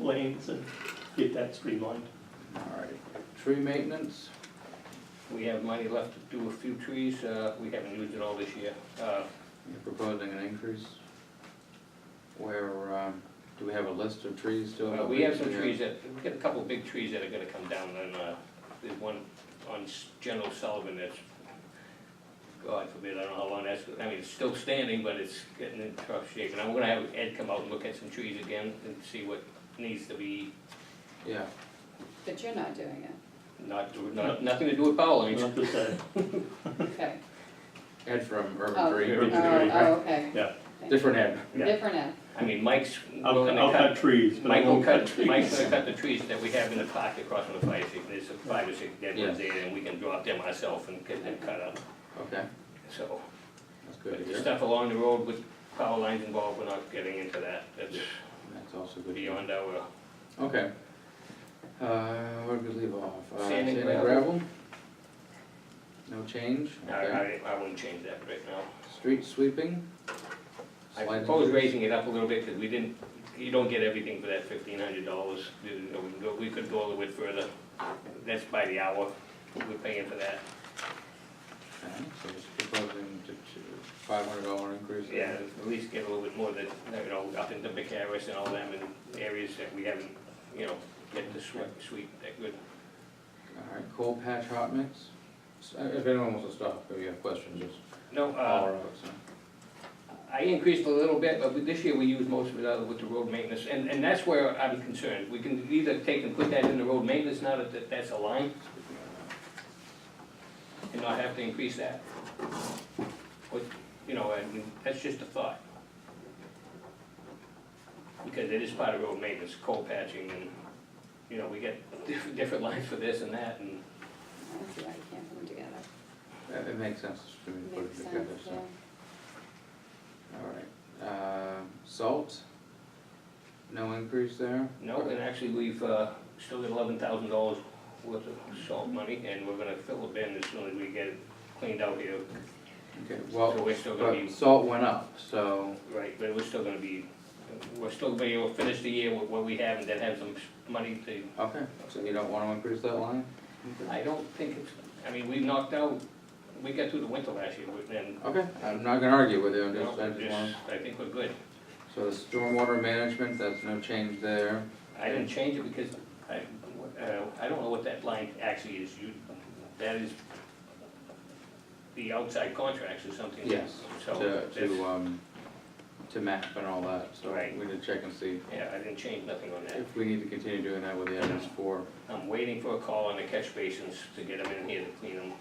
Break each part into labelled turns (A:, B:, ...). A: lanes and get that streamlined.
B: All right, tree maintenance, we have money left to do a few trees, uh, we haven't used it all this year. Uh,
C: You're proposing an increase? Where, um, do we have a list of trees still?
B: uh,
C: that
B: We have some
C: can-
B: trees that, we've got a couple of big trees that are gonna come down, and, uh, there's one on S- General Sullivan that's, God forbid, I don't know how long that's, I mean, it's still standing, but it's getting in rough shape. And I'm gonna have Ed come out and look at some trees again and see what needs to be,
C: Yeah,
D: But you're not doing it,
B: not, do- not, nothing to do with power lines.
A: Not to say,
D: okay.
C: Ed from
D: Oh,
C: Urban Green,
A: Urban
D: Oh,
A: Green.
D: oh, okay,
A: yeah.
C: different Ed.
A: yeah.
D: different end.
B: I mean, Mike's
A: I'll,
B: willing to
A: I'll
B: cut
A: cut trees, but I
B: Mike will
A: won't cut
B: cut,
A: trees.
B: Mike's gonna cut the trees that we have in the park across from the fire station, there's five or six dead ones
C: Yeah.
B: there, and we can drop them ourselves and get them cut up,
C: Okay,
B: so.
C: that's good to
B: But the
C: hear.
B: stuff along the road with power lines involved, we're not getting into that, that's
C: That's also good. to hear.
B: beyond our,
C: Okay. Uh, where did we leave off? Uh,
B: Sand and
C: gravel? No change?
B: I,
C: Okay.
B: I, I wouldn't change that right now.
C: Street sweeping?
B: I
C: Sliding
B: propose
C: doors?
B: raising it up a little bit, because we didn't, you don't get everything for that fifteen hundred dollars, we could go a little bit further, that's by the hour, we're paying for that.
C: Okay, so just proposing to, five hundred dollar increase. there.
B: Yeah, at least get a little bit more that, you know, up into Bucharest and all them, and areas that we haven't, you know, get to sweep, sweep that good.
C: All right, coal patch hot mix? S- uh, If anyone wants to stop, if you have questions, just
B: No, uh,
C: holler out, so.
B: I increased a little bit, but this year we used most of it out with the road maintenance, and, and that's where I'm concerned. We can either take and put that in the road maintenance now that- that that's a line, and not have to increase that. But, you know, I mean, that's just a thought. Because it is part of road maintenance, coal patching and, you know, we get diff- different lines for this and that and,
D: I don't see why you can't put them together.
C: It it makes sense to me to put
D: Makes
C: it together,
D: sense,
C: so.
D: yeah.
C: All right, uh, salt? No increase there?
B: no, and actually we've, uh, still got eleven thousand dollars worth of salt money and we're gonna fill the bin as soon as we get it cleaned out here.
C: Okay,
B: So
C: well,
B: we're still gonna
C: but
B: be,
C: salt went up, so,
B: right, but we're still gonna be, we're still gonna be able to finish the year with what we have and then have some s- money to
C: okay, so you don't wanna increase that line?
B: I don't think it's, I mean, we knocked out, we got through the winter last year, we- and,
C: Okay, I'm not gonna argue with you, I'm
B: you know,
C: just, I just want,
B: I think we're good.
C: so the stormwater management, that's no change there.
B: I didn't change it because I, uh, I don't know what that line actually is, you, that is the outside contracts or something.
C: Yes,
B: So,
C: to,
B: that's,
C: to, um, to map and all that, so
B: Right.
C: we need to check and see
B: yeah, I didn't change nothing on that.
C: if we need to continue doing that with the MS four.
B: I'm waiting for a call on the catch basins to get them in here to clean them.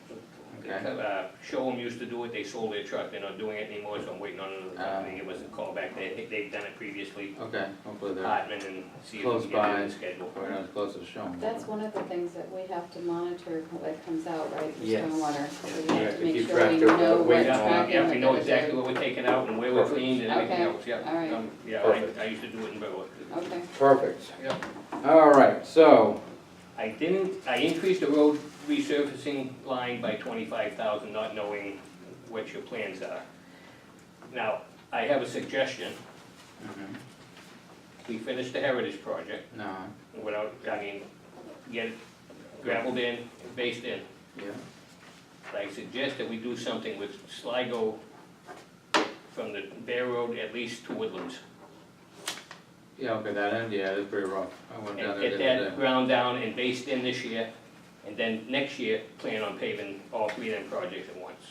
C: Okay.
B: Uh, Showham used to do it, they sold their truck, they're not doing it anymore, so I'm waiting on another
C: Ah.
B: company, to give us a call back, they, they've done it previously.
C: Okay, hopefully they're,
B: Hartman and see if
C: Close
B: we can get it
C: by.
B: on schedule.
C: probably not as close as shown.
D: That's one of the things that we have to monitor what comes out, right, for
C: Yes.
D: stormwater. So
C: Yeah,
D: We have
C: to
D: to make
C: keep
D: sure we
C: track of
D: know
C: what
D: what
C: weight
B: Yeah,
D: tracking.
B: Yeah, we
D: we're
B: know
D: gonna do.
B: exactly what we're taking out and where we're
E: Perfect.
B: cleaned and everything
D: Okay,
B: else, yeah.
D: all right.
B: Um, Yeah, I,
E: Perfect.
B: I used to do it in Berwick.
D: Okay,
E: Perfect.
B: Yeah.
C: All right, so,
B: I didn't, I increased the road resurfacing line by twenty-five thousand, not knowing what your plans are. Now, I have a suggestion,
C: Mm-hmm.
B: we finish the Heritage Project
C: no,
B: without, I mean, get it gravelled in, based in.
C: yeah,
B: I suggest that we do something with Sligo from the Bear Road at least to Woodlands.
C: yeah, okay, that end, yeah, it's pretty rough. I went down
B: And
C: there
B: get
C: the other
B: that
C: day.
B: ground down and based in this year, and then next year, plan on paving all three of them projects at once.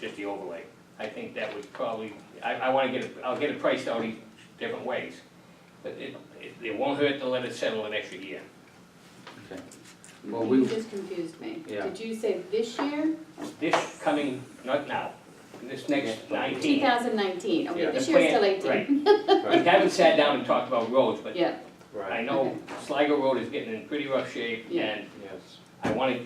B: Just the overlay. I think that would probably, I, I wanna get, it- I'll get it priced out each different ways. But it, it, it won't hurt to let it settle an extra year.
C: Okay, Well,
D: you
C: we-
D: just confused me.
C: Yeah.
D: Did you say this year?
B: This coming, not now, this next
D: Two
B: nineteen.
D: thousand nineteen,
C: Yeah.
D: okay, this
B: the
D: year's still
B: plan-
D: eighteen.
B: Right. We haven't sat down and talked about roads, but
D: Yeah,
B: I
C: right,
B: know Sligo Road is getting in pretty rough shape,
D: Yeah.
B: and
C: yes,
B: I wanna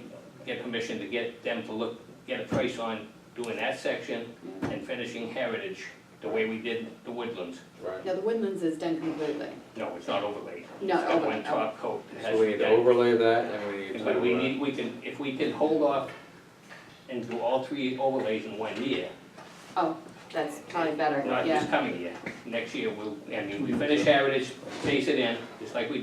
B: get permission to get them to look, get a price on doing that section
D: Yeah.
B: and finishing Heritage, the way we did the Woodlands.
C: right.
D: no, the Woodlands is done completely.
B: No, it's not overlaid.
D: No,
B: It's got one
D: overlaid, oh.
B: top coat. that has
C: So we need to
B: that.
C: overlay that and we need to.
B: But we
C: uh,
B: need, we can, if we can hold off and do all three overlays in one year,
D: Oh, that's probably better,
B: Not
D: yeah.
B: this coming year, next year we'll, I mean, we finish Heritage, face it in, just like we